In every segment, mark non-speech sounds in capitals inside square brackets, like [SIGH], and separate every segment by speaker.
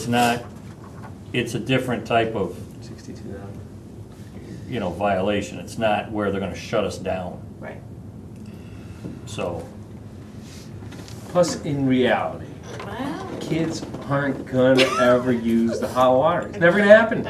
Speaker 1: It's not, it's a different type of,
Speaker 2: 62,000.
Speaker 1: you know, violation. It's not where they're gonna shut us down,
Speaker 3: Right.
Speaker 1: so.
Speaker 2: Plus, in reality,
Speaker 3: Wow.
Speaker 2: kids aren't gonna ever use the hot water. It's never gonna happen.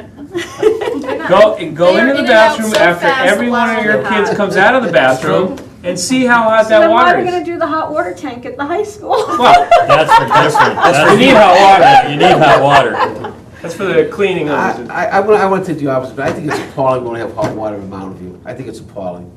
Speaker 2: Go, go
Speaker 3: They're
Speaker 2: into
Speaker 3: in
Speaker 2: the
Speaker 3: and out
Speaker 2: bathroom
Speaker 3: so
Speaker 2: after
Speaker 3: fast,
Speaker 2: every
Speaker 3: the
Speaker 2: one of
Speaker 3: water
Speaker 2: your
Speaker 3: will
Speaker 2: kids
Speaker 3: hot.
Speaker 2: comes out of the bathroom and see how hot
Speaker 4: So
Speaker 2: that
Speaker 4: then why are
Speaker 2: water
Speaker 4: we gonna
Speaker 2: is.
Speaker 4: do the hot water tank at the high
Speaker 1: [LAUGHS]
Speaker 4: school?
Speaker 2: Well,
Speaker 1: That's the difference. That's
Speaker 2: you need hot water. [LAUGHS]
Speaker 1: You need hot
Speaker 3: [LAUGHS]
Speaker 1: water.
Speaker 2: That's for the cleaning of
Speaker 5: I,
Speaker 2: the
Speaker 5: I, I want, I want to do the opposite, but I think it's appalling we don't have hot water in Mountain View. I think it's appalling.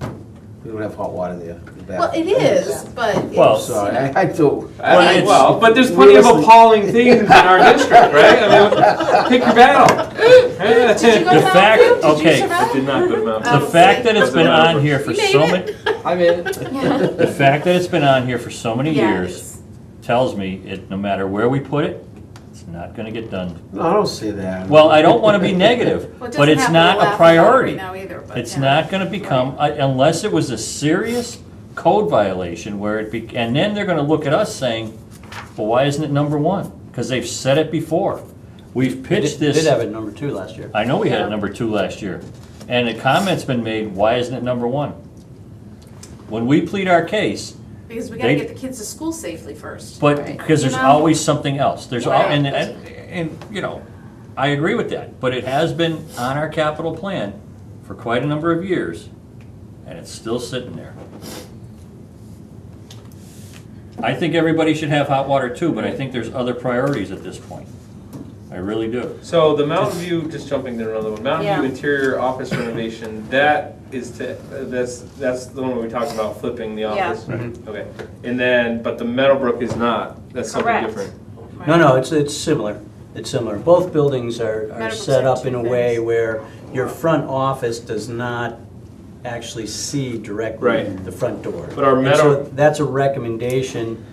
Speaker 5: We don't have hot water there. in the
Speaker 3: Well,
Speaker 5: bathroom.
Speaker 3: it is, but it's.
Speaker 1: Well,
Speaker 5: I'm sorry, I, I do.
Speaker 2: I-
Speaker 1: Well, it's-
Speaker 2: Well, but there's plenty of
Speaker 5: Realistically-
Speaker 2: appalling things in our district, right? [LAUGHS] I mean, pick your battle.
Speaker 3: Did you go
Speaker 1: The
Speaker 3: to
Speaker 1: fact-
Speaker 3: Mountain View? Did you
Speaker 1: okay.
Speaker 3: survive?
Speaker 2: Did not go to Mount.
Speaker 1: The
Speaker 3: Oh,
Speaker 1: fact
Speaker 3: see.
Speaker 1: that it's been on here for
Speaker 3: You made
Speaker 1: so many,
Speaker 3: it.
Speaker 5: I'm in it.
Speaker 1: the fact that it's been on here for so many
Speaker 3: Yeah,
Speaker 1: years tells me it, no matter where we put it, it's not gonna get done.
Speaker 5: No, I don't say that.
Speaker 1: Well, I don't wanna be negative,
Speaker 3: Well, it
Speaker 1: but
Speaker 3: doesn't
Speaker 1: it's
Speaker 3: happen
Speaker 1: not
Speaker 3: to
Speaker 1: a
Speaker 3: Laugh
Speaker 1: priority.
Speaker 3: Factory now either, but
Speaker 1: It's
Speaker 3: yeah.
Speaker 1: not gonna become, I- unless it was a serious code violation where it be, and then they're gonna look at us saying, well, why isn't it number one? Cause they've said it before. We've pitched
Speaker 6: We did- Did
Speaker 1: this,
Speaker 6: have it number two last year.
Speaker 1: I know we had
Speaker 3: Yeah.
Speaker 1: it number two last year, and a comment's been made, why isn't it number one? When we plead our case,
Speaker 3: Because we gotta
Speaker 1: They-
Speaker 3: get the kids to school safely first.
Speaker 1: but,
Speaker 3: Right.
Speaker 1: because there's
Speaker 3: You know?
Speaker 1: always something else, there's, al-
Speaker 3: Right.
Speaker 1: and, and, and, you know, I agree with that, but it has been on our capital plan for quite a number of years, and it's still sitting there. I think everybody should have hot water too, but I think there's other priorities at this point. I really do.
Speaker 2: So the Mountain View, just jumping to another one, Mountain View
Speaker 3: Yeah.
Speaker 2: interior office renovation, that is to, that's, that's the one where we talked about flipping the
Speaker 3: Yeah.
Speaker 2: office.
Speaker 5: Mm-hmm.
Speaker 2: Okay, and then, but the Meadowbrook is not, that's something
Speaker 4: Correct.
Speaker 2: different.
Speaker 6: No, no, it's, it's similar. It's similar. Both buildings are, are
Speaker 3: Medical
Speaker 6: set up in a
Speaker 3: section
Speaker 6: way
Speaker 3: things.
Speaker 6: where your front office does not actually see directly
Speaker 2: Right.
Speaker 6: the front door.
Speaker 2: But our
Speaker 6: And
Speaker 2: metal-
Speaker 6: so That's a recommendation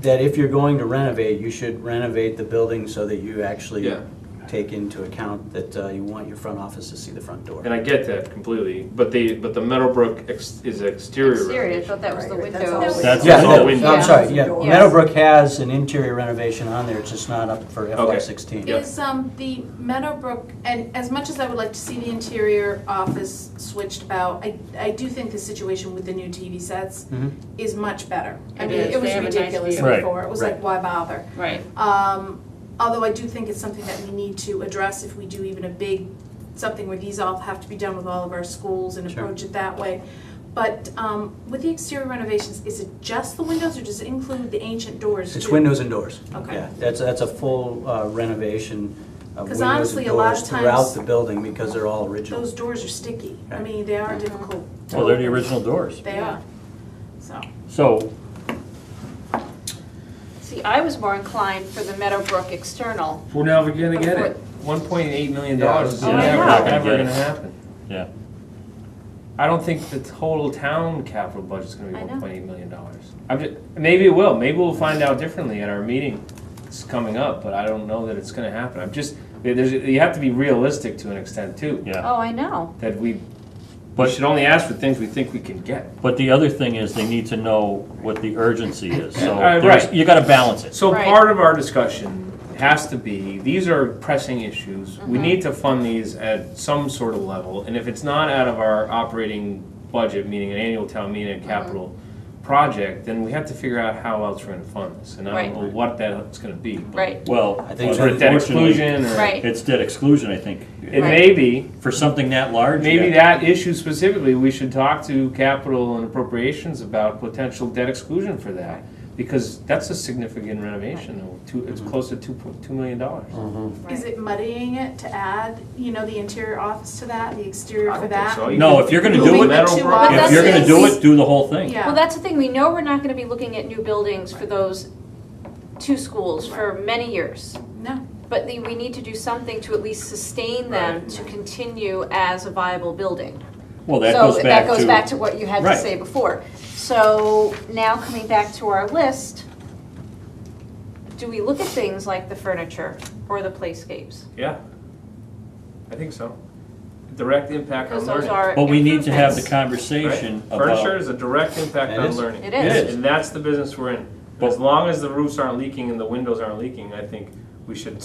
Speaker 6: that if you're going to renovate, you should renovate the building so that you actually
Speaker 2: Yeah.
Speaker 6: take into account that uh, you want your front office to see the front door.
Speaker 2: And I get that completely, but the, but the Meadowbrook ex- is exterior
Speaker 4: Exterior, I
Speaker 2: renovation.
Speaker 4: thought that was the
Speaker 3: Right, that's
Speaker 4: windows.
Speaker 3: always-
Speaker 1: That's
Speaker 6: Yeah,
Speaker 2: all
Speaker 6: no,
Speaker 2: windows.
Speaker 6: I'm sorry, yeah.
Speaker 4: Yes.
Speaker 6: Meadowbrook has an interior renovation on there, it's just not up for
Speaker 2: Okay.
Speaker 6: FY sixteen.
Speaker 2: Yeah.
Speaker 3: Is, um, the Meadowbrook, and as much as I would like to see the interior office switched about, I, I do think the situation with the new TV sets
Speaker 6: Mhm.
Speaker 3: is much better. I
Speaker 7: It
Speaker 3: mean,
Speaker 7: is.
Speaker 3: it was
Speaker 7: They have a nice
Speaker 3: ridiculous
Speaker 1: view. Right.
Speaker 3: before, it was like, why
Speaker 6: Right.
Speaker 3: bother?
Speaker 7: Right.
Speaker 3: Um, although I do think it's something that we need to address if we do even a big, something where these all have to be done with all of our schools and
Speaker 6: Sure.
Speaker 3: approach it that way. But, um, with the exterior renovations, is it just the windows or does it include the ancient doors too?
Speaker 6: It's windows and doors.
Speaker 3: Okay.
Speaker 6: Yeah, that's, that's a full uh, renovation of
Speaker 3: 'Cause
Speaker 6: windows and
Speaker 3: honestly, a lot
Speaker 6: doors
Speaker 3: of
Speaker 6: Throughout
Speaker 3: times-
Speaker 6: the building, because they're all original.
Speaker 3: Those doors are sticky. I
Speaker 6: Right.
Speaker 3: mean, they are difficult. to
Speaker 1: Well, they're the
Speaker 3: open.
Speaker 1: original doors.
Speaker 3: They are, so.
Speaker 1: So,
Speaker 7: See, I was more inclined for the Meadowbrook external.
Speaker 2: We're never gonna
Speaker 7: get
Speaker 2: get
Speaker 7: it.
Speaker 2: it. One point eight million
Speaker 5: Yeah, I
Speaker 2: dollars
Speaker 5: was
Speaker 2: is
Speaker 1: gonna
Speaker 7: say,
Speaker 2: never,
Speaker 7: we're not
Speaker 1: gonna
Speaker 2: ever
Speaker 1: get
Speaker 2: gonna
Speaker 1: it.
Speaker 2: happen.
Speaker 1: yeah,
Speaker 2: I don't think the total town capital budget's gonna be
Speaker 7: I know.
Speaker 2: one point eight million dollars. I'm just, maybe it will, maybe we'll find out differently at our meeting that's coming up, but I don't know that it's gonna happen. I'm just, there's, you have to be realistic to an extent too.
Speaker 1: yeah.
Speaker 7: Oh, I know.
Speaker 2: That we, we
Speaker 1: But-
Speaker 2: should only ask for things we think we can get.
Speaker 1: But the other thing is, they need to know what the urgency is, so
Speaker 2: Uh,
Speaker 1: there's-
Speaker 2: right.
Speaker 1: you gotta balance it.
Speaker 2: So
Speaker 7: Right.
Speaker 2: part of our discussion has to be, these are pressing issues.
Speaker 7: Mm-hmm.
Speaker 2: We need to fund these at some sort of level, and if it's not out of our operating budget, meaning an annual town meeting and
Speaker 7: Mm-hmm.
Speaker 2: capital project, then we have to figure out how else we're gonna fund this, and I don't
Speaker 7: Right.
Speaker 2: know what that's gonna be. but-
Speaker 7: Right.
Speaker 1: Well,
Speaker 6: I think
Speaker 2: Sort of debt
Speaker 1: unfortunately,
Speaker 2: exclusion, or,
Speaker 7: Right.
Speaker 1: it's debt exclusion, I think.
Speaker 2: it may be,
Speaker 1: For something that large?
Speaker 2: maybe
Speaker 1: yeah.
Speaker 2: that issue specifically, we should talk to capital and appropriations about potential debt exclusion for that. Because that's a significant renovation, though. Two- it's close to two, po- two million dollars.
Speaker 3: Is it muddying it to add, you know, the interior office to that, the exterior
Speaker 2: I
Speaker 3: for
Speaker 2: don't think
Speaker 3: that?
Speaker 2: so. You
Speaker 1: No,
Speaker 2: can-
Speaker 1: if you're gonna
Speaker 2: you
Speaker 1: do
Speaker 2: can
Speaker 1: it-
Speaker 2: metal
Speaker 3: If
Speaker 2: work.
Speaker 7: But
Speaker 1: If
Speaker 7: that's
Speaker 1: you're
Speaker 7: the
Speaker 1: gonna
Speaker 7: thing.
Speaker 1: do it, do the whole thing.
Speaker 3: Yeah.
Speaker 7: Well, that's the thing, we know we're not gonna be looking at new buildings for those two schools for many years.
Speaker 3: No,
Speaker 7: But the- we need to do something to at least sustain them
Speaker 2: Right.
Speaker 7: to continue as a viable building.
Speaker 1: Well, that
Speaker 7: So
Speaker 1: goes back
Speaker 7: that
Speaker 1: to.
Speaker 7: goes back to what you had to
Speaker 1: Right.
Speaker 7: say before. So now coming back to our list, do we look at things like the furniture or the playscapes?
Speaker 2: Yeah. I think so. Direct impact on
Speaker 7: Because those
Speaker 2: learning.
Speaker 7: are
Speaker 1: But we need to have the
Speaker 7: improvements.
Speaker 2: right?
Speaker 1: conversation
Speaker 2: Furniture
Speaker 1: about,
Speaker 2: is a direct impact
Speaker 6: It
Speaker 2: on
Speaker 6: is.
Speaker 2: learning.
Speaker 7: It is.
Speaker 1: It is.
Speaker 2: And that's the business we're in. As
Speaker 1: But-
Speaker 2: long as the roofs aren't leaking and the windows aren't leaking, I think we should